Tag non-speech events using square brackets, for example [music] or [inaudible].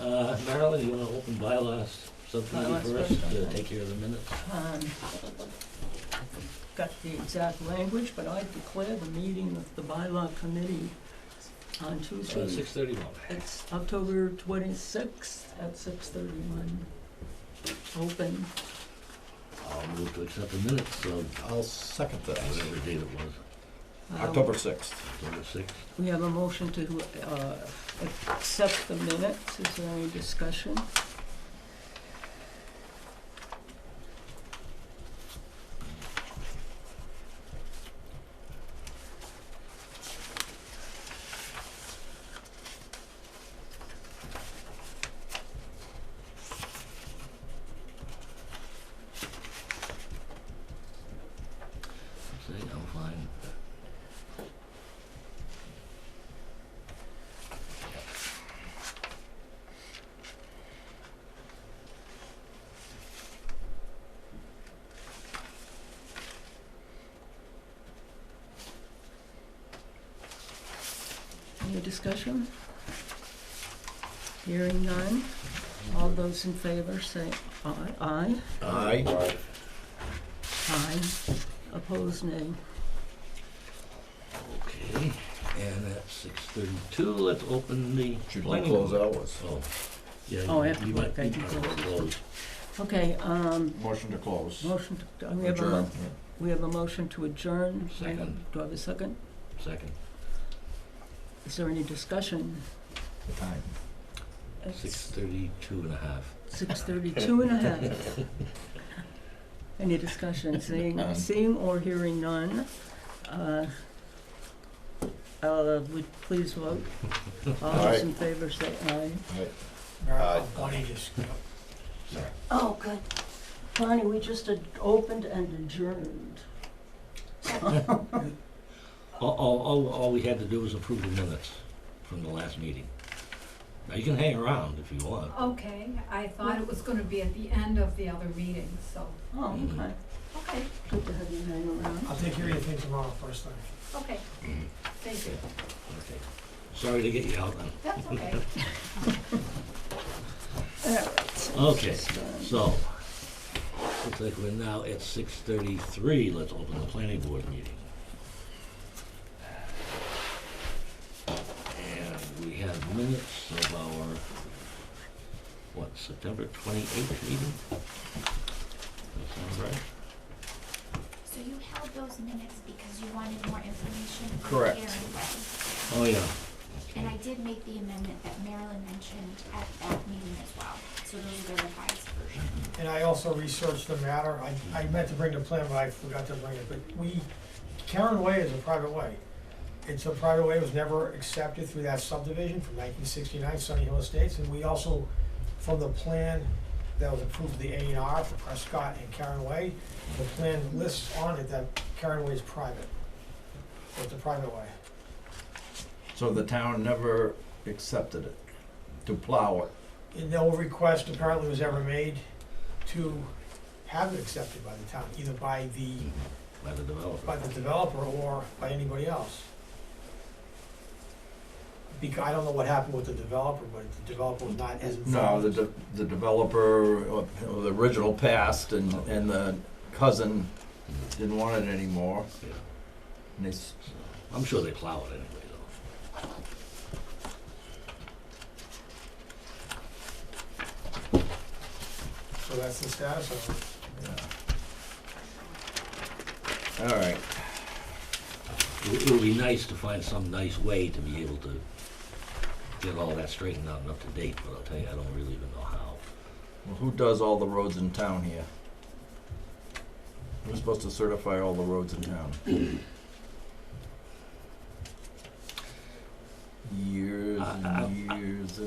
uh, Marilyn, you wanna open bylaws Bylaws subcommittee first first, to okay. take care of the minutes? Um, Got the exact language, but I declare the meeting of the bylaw committee on Uh, Tuesday. six thirty-one. It's October twenty-sixth at six thirty-one. Open. I'll move to accept the minutes of I'll second that. whatever date it was, Um, October sixth. October sixth. We have a motion to uh, accept the minutes. Is there any discussion? See, I'm fine. Any discussion? Hearing none. All those in favor say aye. Aye. Aye. Aye. Opposed, nay. Okay, and at six thirty-two, let's open the Should we planning close board. hours? Oh, yeah. Oh, you- after you work, might- I you can might close. wanna close. Okay, um, Motion to close. motion, to- we have a, mo- Adjourn. we have a motion to adjourn. Do I have- Second. Do I have a second? Second, Is there any discussion? The time. It's six thirty-two and a half. Six thirty-two and a half. [laughs] Any discussion, seeing, None. seeing or hearing none? Uh, uh, would please vote. All those in favor say aye. Aye. Miracle, Bonnie just, Sorry. Oh, good. Bonnie, we just ad- opened and adjourned. All, all, all, all we had to do was approve the minutes from the last meeting. Now, you can hang around if you want. Okay, I thought it was gonna be at the end of the other meeting, so, Oh, Mm-hmm. okay. okay, Good to have you hanging around. I'll take care of your thing tomorrow, first thing. okay, thank you. Okay. Sorry to get you out then. That's okay. All right. Okay, so, looks like we're now at six thirty-three, let's open the planning board meeting. And we have minutes of our, what, September twenty-eighth meeting? That sounds right? So you held those minutes because you wanted more information? on the Correct. hearing, right? Oh, yeah. And I Okay. did make the amendment that Marilyn mentioned at that meeting as well, so those are the revised version. And I also researched the matter, I, I meant to bring the plan, but I forgot to bring it, but we, Karen Way is a private way. It's a private way, it was never accepted through that subdivision from nineteen sixty-nine, Sunny Hill Estates, and we also, from the plan that was approved, the A and R for Prescott and Karen Way, the plan lists on it that Karen Way is private. So It's a private way. So the town never accepted it, to plow it. And no request apparently was ever made to have it accepted by the town, either by the, By the developer. by the developer or by anybody else. Because, I don't know what happened with the developer, but the developer was not as No, involved. the, de- the developer, uh, the original passed and, and the cousin didn't want it anymore. Yeah. And they, s- I'm sure they plow it anyway, though. So that's the status of yeah. All right, It it would be nice to find some nice way to be able to get all that straightened out and up to date, but I'll tell you, I don't really even know how. well, who does all the roads in town here? Who's supposed to certify all the roads in town? Years I- I- and years